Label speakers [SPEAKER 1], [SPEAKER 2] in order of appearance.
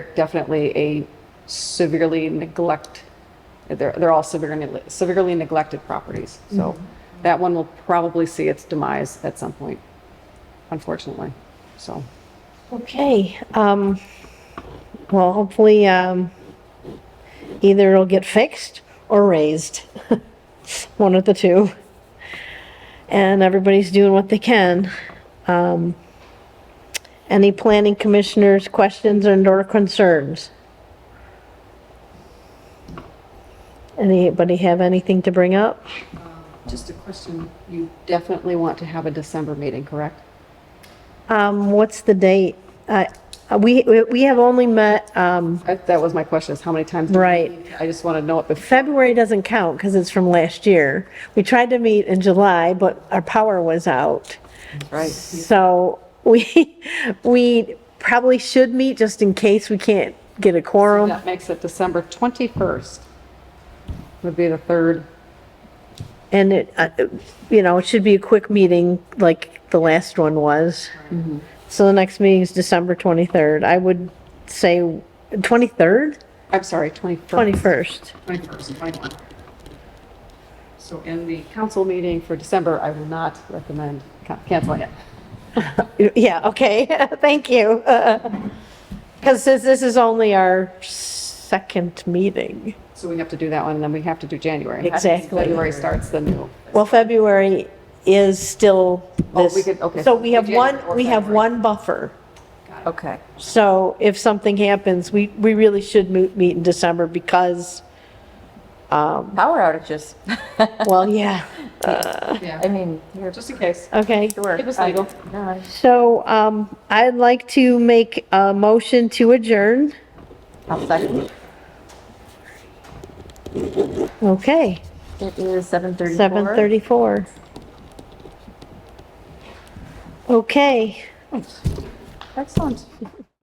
[SPEAKER 1] definitely a severely neglect, they're, they're all severely, severely neglected properties. So that one will probably see its demise at some point, unfortunately. So,
[SPEAKER 2] Okay, um, well, hopefully, um, either it'll get fixed or raised. One of the two. And everybody's doing what they can. Um, any planning commissioners' questions and or concerns? Anybody have anything to bring up?
[SPEAKER 1] just a question, you definitely want to have a December meeting, correct?
[SPEAKER 2] Um, what's the date? Uh, we, we have only met, um,
[SPEAKER 1] That that was my question, is how many times? do we
[SPEAKER 2] Right.
[SPEAKER 1] meet? I just want to know it before.
[SPEAKER 2] February doesn't count because it's from last year. We tried to meet in July, but our power was out.
[SPEAKER 1] right?
[SPEAKER 2] So we, we probably should meet just in case we can't get a quorum.
[SPEAKER 1] That makes it December 21st. Would be the third,
[SPEAKER 2] And it, uh, you know, it should be a quick meeting like the last one was. So the next meeting is December 23rd. I would say 23rd,
[SPEAKER 1] I'm sorry, 21st.
[SPEAKER 2] 21st.
[SPEAKER 1] 21st and 21. So in the council meeting for December, I will not recommend ca- canceling it.
[SPEAKER 2] Yeah, okay, thank you. Because this, this is only our second meeting.
[SPEAKER 1] So we have to do that one, and then we have to do January.
[SPEAKER 2] Exactly.
[SPEAKER 1] February starts the new.
[SPEAKER 2] Well, February is still
[SPEAKER 1] Oh, we
[SPEAKER 2] this.
[SPEAKER 1] could- okay.
[SPEAKER 2] So we have
[SPEAKER 1] January or
[SPEAKER 2] one, we have
[SPEAKER 1] February.
[SPEAKER 2] one buffer.
[SPEAKER 1] Okay.
[SPEAKER 2] So if something happens, we, we really should mo- meet in December because,
[SPEAKER 3] Power outages.
[SPEAKER 2] well, yeah, Uh,
[SPEAKER 3] I
[SPEAKER 1] Yeah,
[SPEAKER 3] mean, you're
[SPEAKER 1] just in case.
[SPEAKER 2] okay.
[SPEAKER 3] sure.
[SPEAKER 1] It was legal.
[SPEAKER 3] I- no, I-
[SPEAKER 2] So um, I'd like to make a motion to adjourn.
[SPEAKER 3] I'll second.
[SPEAKER 2] Okay,
[SPEAKER 3] It is 7:34.
[SPEAKER 2] 7:34. Okay,
[SPEAKER 1] Excellent.